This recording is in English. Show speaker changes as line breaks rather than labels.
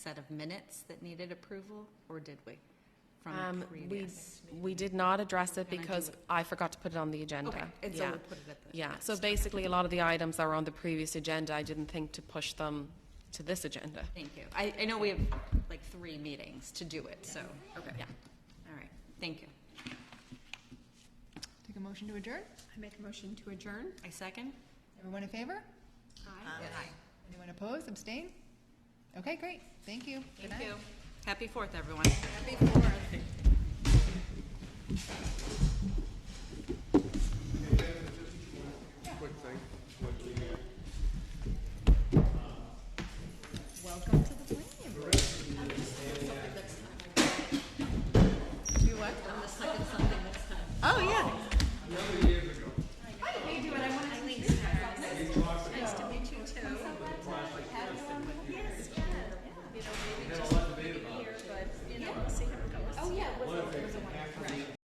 set of minutes that needed approval, or did we? From
Um, we,
previous?
we did not address it
Can I do
because
it?
I forgot to put it on the
Okay,
agenda.
and so
uh, Yeah.
we'll put it at the.
Yeah, so basically, a lot of the items that were on the previous agenda, I didn't think to push them to this agenda.
Thank you. I, I know we have like three meetings to do it, so, okay.
Yeah.
All right, thank you.
Take a motion to adjourn.
I make a motion to adjourn.
I second?
Everyone in favor?
Aye.
Anyone opposed, abstain? Okay, great, thank you. Good night.
Thank you. Happy Fourth, everyone.
Welcome to the planning board. Do what? Oh, yeah.